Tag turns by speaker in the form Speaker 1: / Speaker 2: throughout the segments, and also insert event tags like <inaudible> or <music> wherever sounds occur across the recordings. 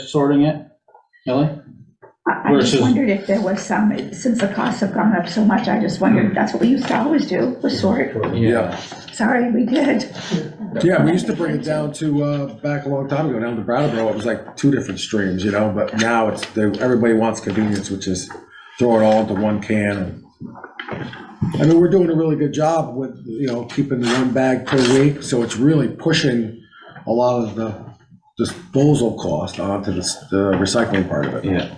Speaker 1: sorting it, Kelly?
Speaker 2: I I just
Speaker 1: Versus-
Speaker 2: wondered if there was some, since the costs have gone up so much, I just wondered, that's what we used to always do, was sort.
Speaker 3: Yeah.
Speaker 2: Sorry, we did.
Speaker 3: Yeah, we used to bring it down to, uh, back a long time ago, down to Brattleboro, it was like two different streams, you know, but now it's, they- everybody wants convenience, which is throw it all into one can. and- I mean, we're doing a really good job with, you know, keeping the one bag per week, so it's really pushing a lot of the disposal cost onto the, s- the recycling part of it.
Speaker 4: Yeah.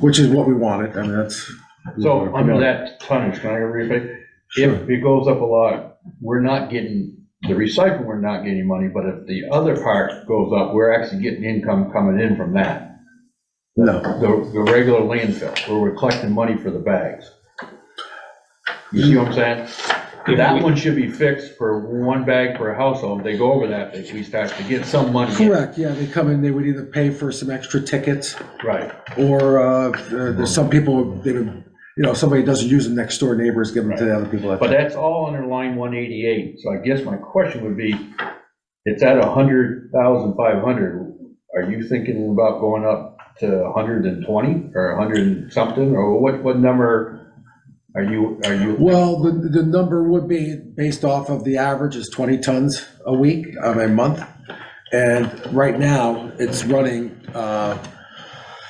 Speaker 3: Which is what we wanted, I mean, that's.
Speaker 5: So under that tonnage, can I go real quick? If it goes up a lot, we're not getting, the recycling, we're not getting money, but if the other part goes up, we're actually getting income coming in from that.
Speaker 3: No,
Speaker 5: The, the regular landfill, where we're collecting money for the bags. You see what I'm saying? That one should be fixed for one bag per household. If they go over that, they- we start to get some money. in.
Speaker 3: correct, yeah, they come in, they would either pay for some extra tickets,
Speaker 5: Right,
Speaker 3: Or uh, there's some people, they, you know, somebody doesn't use them, next door neighbors give them to the other people.
Speaker 5: but that's all under line one eighty-eight. So I guess my question would be, it's at a hundred thousand five hundred. Are you thinking about going up to hundred and twenty or hundred and something, or what, what number are you, are you?
Speaker 3: Well, the, the number would be based off of the average is 20 tons a week, um, a month. And right now, it's running uh,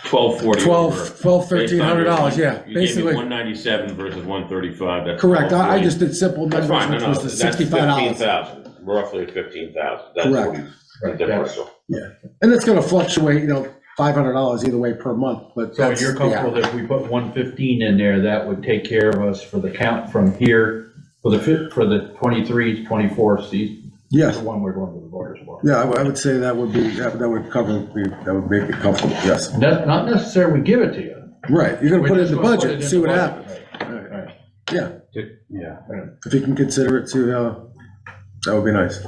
Speaker 6: Twelve forty.
Speaker 3: 12, 12, 1300 dollars, yeah, basically.
Speaker 6: One ninety-seven versus one thirty-five, that's.
Speaker 3: Correct, I, I
Speaker 6: 1240.
Speaker 3: just did simple
Speaker 6: That's
Speaker 3: numbers,
Speaker 6: fine, no,
Speaker 3: which
Speaker 6: no,
Speaker 3: was the
Speaker 6: that's
Speaker 3: 65
Speaker 6: fifteen
Speaker 3: dollars.
Speaker 6: thousand, roughly fifteen thousand, that's
Speaker 3: Correct.
Speaker 6: what he's, the differential.
Speaker 3: And it's gonna fluctuate, you know, 500 dollars either way per month, but
Speaker 5: So
Speaker 3: that's.
Speaker 5: you're
Speaker 3: the
Speaker 5: comfortable
Speaker 3: average.
Speaker 5: that if we put one fifteen in there, that would take care of us for the count from here, for the fit, for the twenty-three, twenty-four season?
Speaker 3: Yes.
Speaker 5: The one we're going to the voters for.
Speaker 3: Yeah, I would- I would say that would be, that that would cover, that would make it comfortable, yes.
Speaker 5: Not, not necessarily we give it to you.
Speaker 3: Right, you're gonna
Speaker 5: We're
Speaker 3: put it in
Speaker 5: just
Speaker 3: the
Speaker 5: gonna put
Speaker 3: budget,
Speaker 5: it
Speaker 3: and
Speaker 5: in
Speaker 3: see
Speaker 5: the
Speaker 3: what
Speaker 5: budget.
Speaker 3: happens.
Speaker 5: Right, right.
Speaker 3: Yeah,
Speaker 4: Yeah.
Speaker 3: if you can consider it to, uh, that would be nice.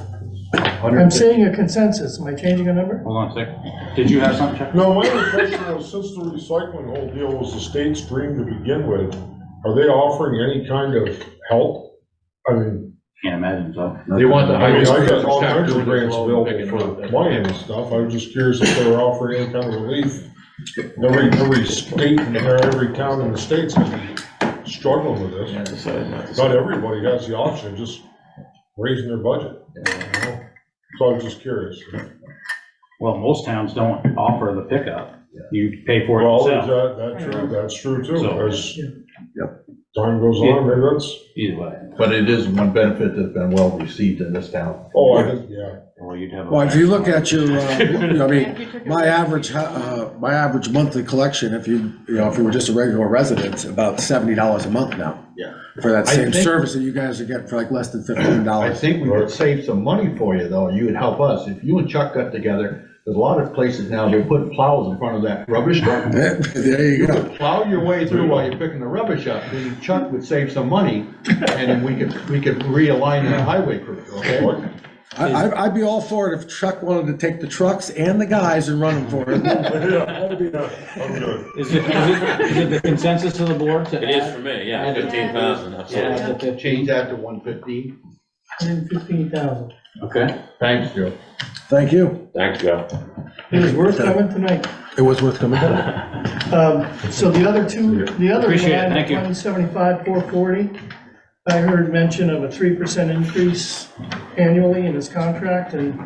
Speaker 7: I'm seeing a consensus. Am I changing a number?
Speaker 4: Hold on a sec. Did you have something, Chuck?
Speaker 8: No, my impression was since the recycling whole deal was a state stream to begin with, are they offering any kind of help? I mean,
Speaker 4: Can't imagine, so.
Speaker 5: They want the
Speaker 8: I mean,
Speaker 5: highest
Speaker 8: I got
Speaker 5: rate
Speaker 8: all
Speaker 5: start
Speaker 8: kinds of
Speaker 5: doing this
Speaker 8: grants
Speaker 5: low,
Speaker 8: available
Speaker 5: picking up.
Speaker 8: for money and stuff, I was just curious if they were offering any kind of relief. Every, every state and every town in the state's struggling with this. Not everybody has the option of just raising their budget. you know? So I was just curious.
Speaker 4: Well, most towns don't offer the pickup. You pay for it
Speaker 8: Well, is
Speaker 4: yourself,
Speaker 8: that, that true, that's true too,
Speaker 4: So-
Speaker 8: as time goes on, maybe that's,
Speaker 4: either way.
Speaker 5: But it is one benefit that's been well received in this town.
Speaker 8: oh, I did, yeah. <laughs>
Speaker 4: Well, you'd have. a-
Speaker 3: Well, if you look at your,
Speaker 5: <laughs>
Speaker 3: uh, you know, I mean, my average, ho- uh, my average monthly collection, if you, you know, if you were just a regular resident, it's about seventy dollars a month now.
Speaker 5: Yeah.
Speaker 3: For that
Speaker 5: I
Speaker 3: same
Speaker 5: think-
Speaker 3: service that you guys are getting for like less than fifteen
Speaker 5: I
Speaker 3: dollars. <laughs>
Speaker 5: think we would save some money for you, though, you would help us, if you and Chuck got together, there's a lot of places now, they put plows in front of that rubbish truck.
Speaker 3: There you
Speaker 5: You
Speaker 3: go.
Speaker 5: could plow your way through while you're picking the rubbish up, then Chuck would save some money, and then we could, we could realign the highway crew, okay?
Speaker 3: I, I'd- I'd be all for it if Chuck wanted to take the trucks and the guys and run them for it.
Speaker 8: I'm good.
Speaker 9: Is it, is it, is it the consensus of the board to
Speaker 6: It is
Speaker 9: add,
Speaker 6: for me, yeah,
Speaker 9: add it.
Speaker 6: fifteen thousand, absolutely.
Speaker 9: add the fifty?
Speaker 5: Change that to one fifteen,
Speaker 7: Hundred fifteen thousand.
Speaker 4: Okay.
Speaker 5: thanks, Joe.
Speaker 3: Thank you.
Speaker 6: Thanks, Joe.
Speaker 7: It was worth coming tonight.
Speaker 3: It was worth coming down. <laughs>
Speaker 7: Um, So the other two, the other
Speaker 4: Appreciate it. Thank you.
Speaker 7: line, one seventy-five, four forty, I heard mention of a three percent increase annually in his contract, and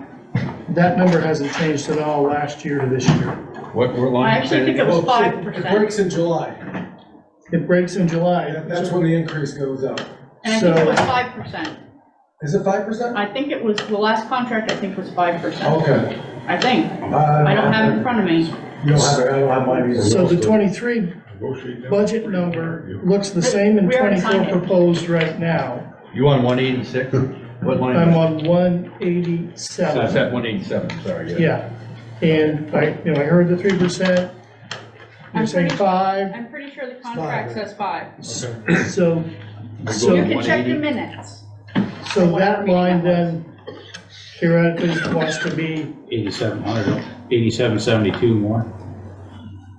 Speaker 7: that number hasn't changed at all last year to this year.
Speaker 5: What, what line?
Speaker 10: I actually think it was five percent,
Speaker 3: in July.
Speaker 7: It breaks in July.
Speaker 3: when the increase goes up.
Speaker 10: and I think
Speaker 7: So-
Speaker 10: it was five percent.
Speaker 3: Is it five percent?
Speaker 10: I think it was, the last contract, I think, was five percent,
Speaker 3: Okay.
Speaker 10: I think. I don't have it in front of me.
Speaker 3: Uh, You don't have, I don't have mine either.
Speaker 7: So the twenty-three
Speaker 8: Negotiate that.
Speaker 7: budget number looks the same in
Speaker 10: We already signed
Speaker 7: twenty-four
Speaker 10: it.
Speaker 7: proposed right now.
Speaker 5: You on one eighty-six? What line?
Speaker 7: I'm on one
Speaker 5: That's
Speaker 7: eighty-seven.
Speaker 5: at one eighty-seven, sorry, yeah.
Speaker 7: Yeah, and I, you know, I heard the three percent, you're
Speaker 10: I'm
Speaker 7: saying
Speaker 10: pretty-
Speaker 7: five,
Speaker 10: I'm pretty sure the contract says five.
Speaker 7: so,
Speaker 10: You
Speaker 7: so,
Speaker 10: can check
Speaker 5: 180.
Speaker 10: your minutes.
Speaker 7: so that line then theoretically wants to be,
Speaker 4: Eighty-seven hundred, eighty-seven seventy-two more.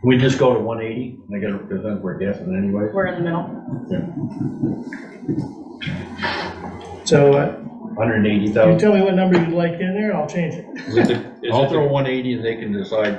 Speaker 5: We just go to one eighty, and I gotta, because then we're guessing anyway.
Speaker 10: We're in the middle.
Speaker 7: so uh,
Speaker 5: Hundred and eighty
Speaker 7: you tell me what number you'd like in there, I'll change it.
Speaker 4: Is it the- is it
Speaker 5: I'll
Speaker 4: the
Speaker 5: throw one eighty and they can decide